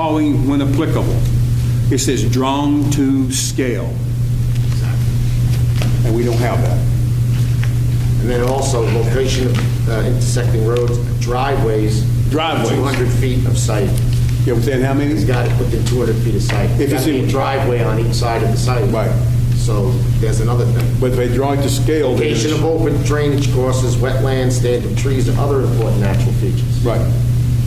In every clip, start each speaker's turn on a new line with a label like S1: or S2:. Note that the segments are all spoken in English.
S1: following when applicable. It says drawn to scale. And we don't have that.
S2: And then also location of uh, intersecting roads, driveways.
S1: Driveways.
S2: 200 feet of site.
S1: Yeah, within how many?
S2: He's got it within 200 feet of site.
S1: If it's
S2: Gotta be
S1: in-
S2: a driveway on each side of the site.
S1: Right.
S2: So there's another thing.
S1: But they draw it to scale. then it's-
S2: Location of open drainage courses, wetlands, standing trees, and other important natural features.
S1: Right.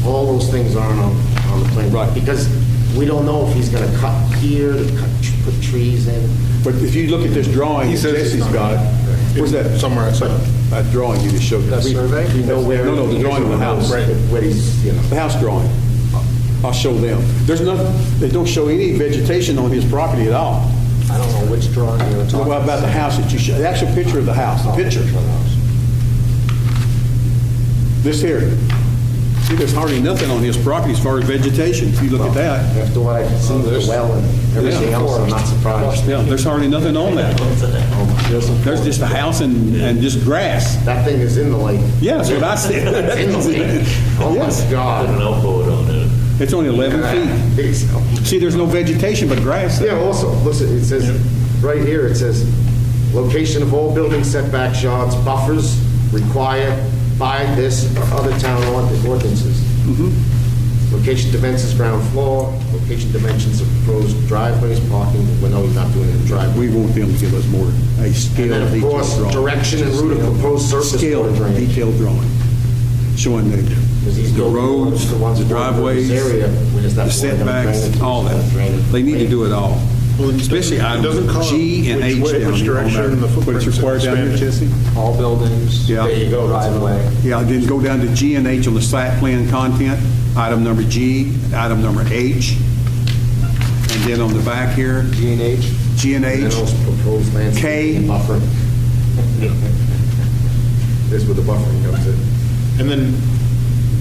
S2: All those things aren't on, on the plan.
S1: Right.
S2: Because we don't know if he's gonna cut here, to cut, put trees in.
S1: But if you look at this drawing,
S3: He says it's
S1: Jesse's
S3: not.
S1: got it. Where's that?
S3: Somewhere outside.
S1: That drawing you just showed us.
S2: We- We know where.
S1: No, no, the drawing of the house.
S3: Right.
S2: Where he's, you know.
S1: The house drawing. I'll show them. There's nothing, they don't show any vegetation on his property at all.
S2: I don't know which drawing you're talking
S1: What
S2: about.
S1: about the house that you showed? The actual picture of the house, the picture. This here. See, there's hardly nothing on his property as far as vegetation, if you look at that.
S2: After what I can see, the well and everything
S1: Yeah.
S2: else, I'm not surprised.
S1: Yeah, there's hardly nothing on that. There's just a house and, and just grass.
S2: That thing is in the lake.
S1: Yeah, that's what I said.
S2: It's in the lake. Oh,
S1: Yes.
S2: my God.
S1: It's only 11 feet.
S2: Big cell.
S1: See, there's no vegetation but grass.
S2: Yeah, also, listen, it says, right here, it says, location of all building setback yards, buffers required by this or other town ord- ordinances.
S1: Mm-hmm.
S2: Location dimensions, ground floor, location dimensions of proposed driveways, parking, well, no, he's not doing it in driveway.
S1: We want them to give us more, a
S2: And
S1: scale
S2: then, of
S1: detailed
S2: course,
S1: drawing.
S2: direction and route of proposed surface
S1: Scale
S2: water drainage.
S1: detailed drawing, showing the,
S2: Because he's
S1: the
S2: building
S1: roads,
S2: the ones
S1: the
S2: that work in
S1: driveways,
S2: this area, we just have
S1: the
S2: to worry about
S1: setbacks,
S2: drainage,
S1: all
S2: drainage.
S1: that. They need to do it all, especially
S3: It doesn't call
S1: items
S3: out
S1: G and
S3: which
S1: H
S3: way-
S1: down
S3: Which
S1: here on
S3: direction and the
S1: that. But
S3: footprints
S1: it's required down here,
S3: expanded.
S1: Jesse?
S4: All buildings.
S1: Yeah.
S4: There you go. Driveway.
S1: Yeah, then go down to G and H on the site plan content, item number G, item number H, and then on the back here,
S2: G and H.
S1: G and
S2: And
S1: H,
S2: also proposed
S1: K.
S2: landscaping and buffer. This is where the buffering comes in.
S3: And then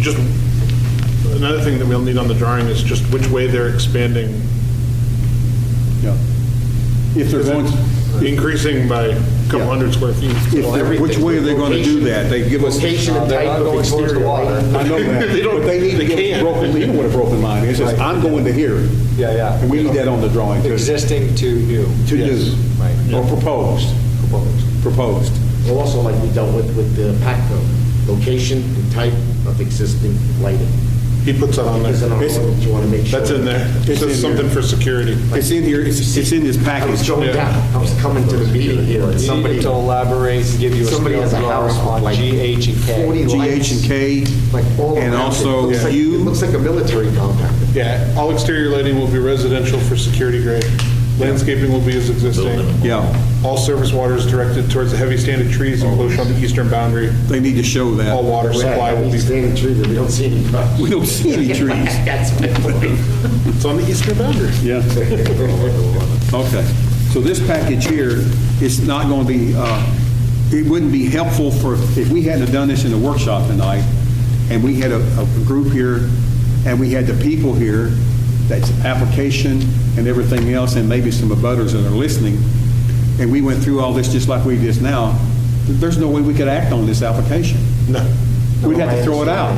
S3: just, another thing that we'll need on the drawing is just which way they're expanding.
S1: yeah. If they're
S3: Is
S1: going,
S3: it Increasing by a
S1: Yeah.
S3: couple hundred square feet.
S1: If they're- which way are they going to do that? They give us.
S2: Location and
S4: They're
S2: type
S4: not
S2: of
S4: going towards the
S2: exterior.
S4: water.
S2: right?
S1: I know
S3: They
S1: that,
S3: don't-
S1: but they need to
S3: they
S1: give us
S3: can't.
S1: broken, you know what a broken line is, it's,
S4: Right.
S1: I'm going to here.
S4: Yeah, yeah.
S1: And we need that on the drawing, too.
S4: Existing to new.
S1: To do.
S4: Right.
S1: Or proposed, proposed.
S2: Well, Also like we dealt with, with the PACCO, location and type of existing lighting.
S3: He puts that on
S2: Because in our
S3: there.
S1: It's-
S2: ordinance, you want to make sure.
S3: That's in there. It
S1: It's in
S3: says something
S1: there.
S3: for security.
S1: It's in here, it's, it's in this
S2: I
S1: package.
S2: was going
S3: Yeah.
S2: down, I was coming to the meeting here and
S4: You
S2: somebody.
S4: needed to elaborate and give you a
S2: Somebody
S4: scale
S2: has a house
S4: drawing
S2: with
S4: on
S2: like
S4: G, H, and K.
S2: 40
S1: G, H, and K,
S2: Like all around it.
S1: and also
S2: It looks like- It
S1: U,
S2: looks like a military compound.
S3: Yeah, all exterior lighting will be residential for security grade. Landscaping will be as existing.
S1: yeah,
S3: All surface water is directed towards the heavy standing trees enclosed on the eastern boundary.
S1: they need to show
S3: All
S1: that.
S3: water supply will be,
S2: He's standing tree that we don't see any. brush.
S1: We don't see any trees.
S2: That's my point.
S3: it's on the eastern boundary.
S1: Yeah. Okay, so this package here is not going to be, uh, it wouldn't be helpful for, if we hadn't have done this in the workshop tonight, and we had a a group here, and we had the people here, that's application and everything else, and maybe some abutters that are listening, and we went through all this just like we just now, there's no way we could act on this application.
S3: No.
S1: We'd have to throw it out.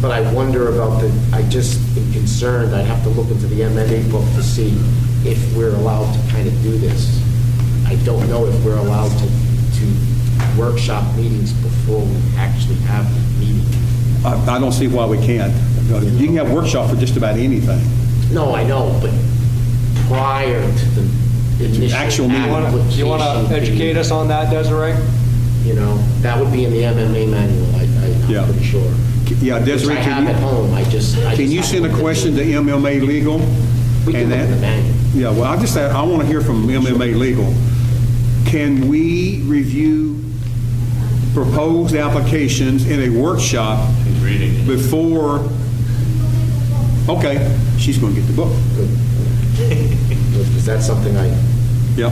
S2: But I wonder about the, I just am concerned, I'd have to look into the MMA book to see if we're allowed to kind of do this. I don't know if we're allowed to, to workshop meetings before we actually have the meeting.
S1: I I don't see why we can't. You can have workshop for just about anything.
S2: No, I know, but prior to the initial
S1: actual meeting.
S4: You wanna- You want to
S2: application
S4: educate
S2: being-
S4: us on that, Desiree?
S2: You know, that would be in the MMA manual, I, I-
S1: Yeah.
S2: I'm pretty sure.
S1: Yeah, Desiree,
S2: Which I have at
S1: can you,
S2: home, I just. I
S1: can
S2: just
S1: you
S2: have
S1: send
S2: to
S1: a
S2: look
S1: question
S2: into
S1: to
S2: it.
S1: MMA Legal?
S2: We can
S1: And
S2: look in
S1: that-
S2: the manual.
S1: Yeah, well, I just, I want to hear from MMA Legal. Can we review proposed applications in a workshop before, okay, she's going to get the book.
S2: Is that something I,
S1: Yep,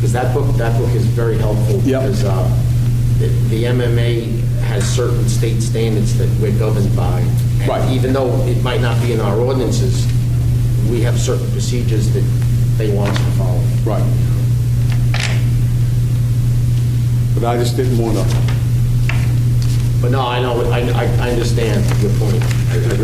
S2: because that book, that book is very helpful.
S1: Yep.
S2: Because uh, the the MMA has certain state standards that we're governed by. And
S1: Right.
S2: Even though it might not be in our ordinances, we have certain procedures that they want us to follow.
S1: right. But I just didn't want to,
S2: But no, I know, I, I I understand your point. I- I